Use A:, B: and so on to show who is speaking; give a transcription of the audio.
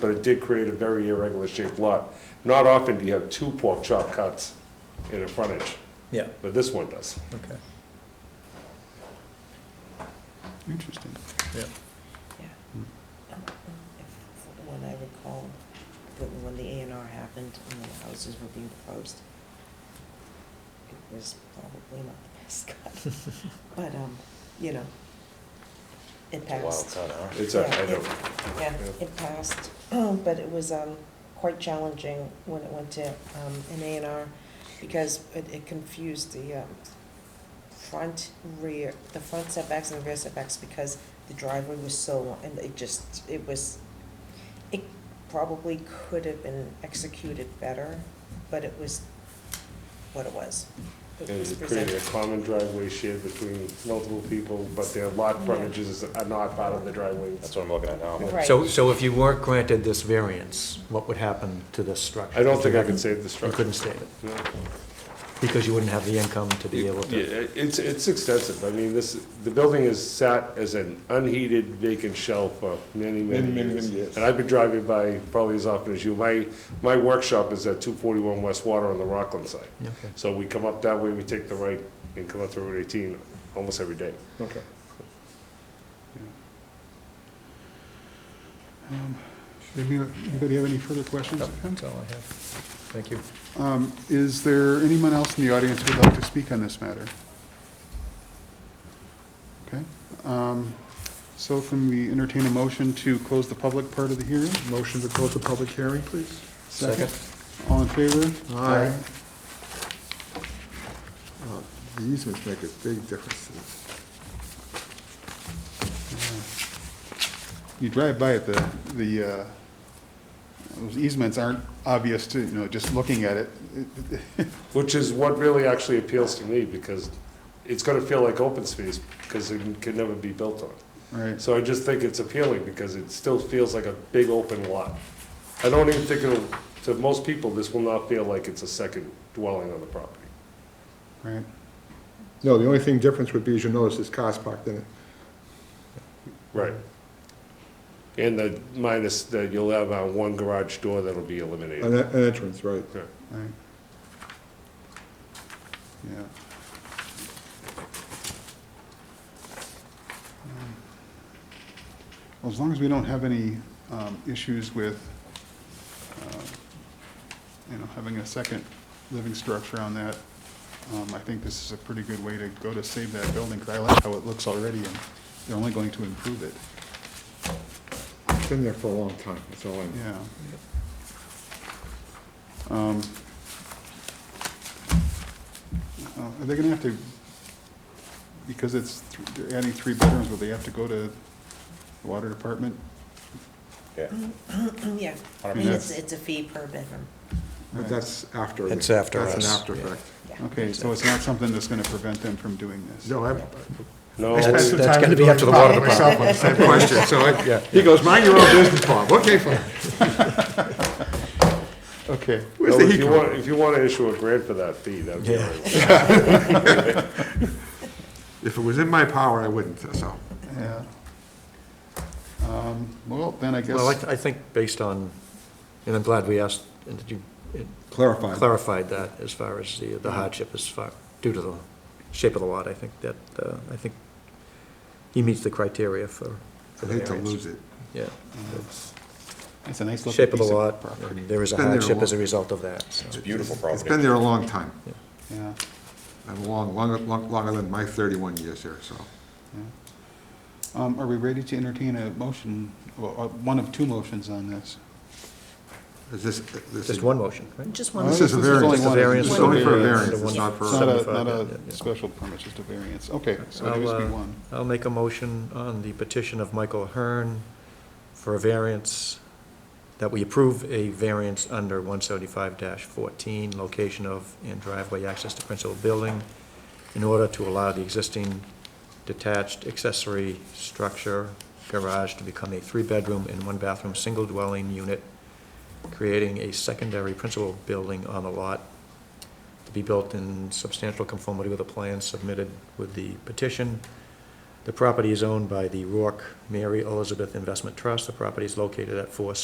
A: but it did create a very irregular shaped lot. Not often do you have two pork chop cuts in a frontage,
B: Yeah,
A: but this one does.
B: okay.
C: Interesting.
D: From When I recall, that when the A and R happened and the houses were being proposed, it was probably not the best cut, but, um, you know, it passed.
A: It's, a- I know,
D: Yeah,
A: Yeah.
D: it passed, but it was um, quite challenging when it went to um, an A and R because it it confused the um, front, rear, the front setbacks and the rear setbacks because the driveway was so long and it just, it was, it probably could have been executed better, but it was what it was. It
A: and
D: was
A: it created a
D: presented.
A: common driveway shared between multiple people, but their lot
D: Yeah.
A: frontages are not part of the driveway.
E: That's what I'm looking at now.
D: Right.
B: So, so if you weren't granted this variance, what would happen to this structure?
A: I don't
B: If you
A: think I can
B: hadn't-
A: save the
B: You
A: structure.
B: couldn't save it,
A: No.
B: because you wouldn't have the income to be able
A: Yeah,
B: to.
A: it- it's, it's extensive. I mean, this, the building is sat as an unheated vacant shell for many, many
C: Many, many,
A: years.
C: many years.
A: And I've been driving by probably as often as you. My, my workshop is at two forty-one West Water on the Rockland side.
B: Okay.
A: So we come up that way, we take the right and come up to Route eighteen almost every day.
C: Okay. Um, Anybody have any further questions? of him?
B: That's all I have. Thank you.
C: Um, Is there anyone else in the audience who'd like to speak on this matter? Okay. um, So can we entertain a motion to close the public part of the hearing? Motion to close the public hearing, please. Second. All in favor?
F: Aye.
C: Uh,
F: The easements make a big difference. to this.
C: You drive by it, the, the, uh, those easements aren't obvious to, you know, just looking at it. It- it-
A: Which is what really actually appeals to me because it's gonna feel like open space because it can never be built on.
C: Right,
A: So I just think it's appealing because it still feels like a big open lot. I don't even think it'll, to most people, this will not feel like it's a second dwelling on the property.
C: right.
F: No, the only thing difference would be, as you notice, is cars parked in it.
A: Right. And the minus that you'll have on one garage door that'll be
F: An
A: eliminated.
F: an entrance, right.
C: Right. Yeah. Um, Well, as long as we don't have any um, issues with, um, you know, having a second living structure on that, um, I think this is a pretty good way to go to save that building, because I like how it looks already, and they're only going to improve it,
F: It's been there for a long time, that's all I know.
C: yeah. Um, uh, Are they gonna have to, because it's, th- they're adding three bedrooms, will they have to go to the water department?
E: Yeah.
D: Yeah,
C: I mean,
D: it's,
C: that's-
D: it's a fee per bedroom,
F: But that's after.
B: It's after
F: That's an
B: us,
F: after
B: yeah.
F: effect.
D: yeah.
C: Okay, so it's not something that's gonna prevent them from doing this?
F: No, I.
A: No,
F: I spent
B: That's-
F: some
B: that's
F: time
B: gonna be up to the
F: doing
B: water
F: it myself on the Same question, so I, yeah. He goes, mind your own business, Bob. Okay, fine.
C: Okay.
F: Where's
A: no,
F: the
A: if
F: heat
A: you
F: coming
A: want, if you want to issue a grant for that fee, that'd be all right.
F: If it was in my power, I wouldn't, so.
C: Yeah. Um, Well, then I guess.
B: Well, I, I think based on, and I'm glad we asked, and that you it
F: Clarify.
B: clarified that as far as the the hardship is far, due to the shape of the lot, I think that, uh, I think he meets the criteria for, for
F: I
B: the
F: hate to
B: variance.
F: lose it.
B: Yeah.
C: It's a nice looking
B: Shape of the
C: piece
B: lot,
C: of property.
B: and there is a
F: Been there a
B: hardship as a
F: long-
B: result of that, so.
E: It's a beautiful
F: It's been
E: property.
F: there a long time,
C: Yeah.
F: and long, long, long- longer than my thirty-one years here, so.
C: Yeah. Um, Are we ready to entertain a motion, well, uh, one of two motions on this?
F: Is this, this?
B: Just one motion, right?
D: Just
C: Well,
D: one.
F: This is a
C: this is only
F: variance.
C: one.
B: Variance
F: It's only for a
B: variance.
F: variance, it's not for.
C: It's not a,
B: Seventy-five,
C: not a
B: yeah, yeah.
C: special permit, just a variance. Okay, so
B: I'll,
C: there must be
B: uh,
C: one.
B: I'll make a motion on the petition of Michael Hearn for a variance, that we approve a variance under one seventy-five fourteen, location of and driveway access to principal building, in order to allow the existing detached accessory structure garage to become a three-bedroom and one-bathroom single dwelling unit, creating a secondary principal building on the lot to be built in substantial conformity with the plans submitted with the petition. The property is owned by the Rourke Mary Elizabeth Investment Trust. The property is located at 4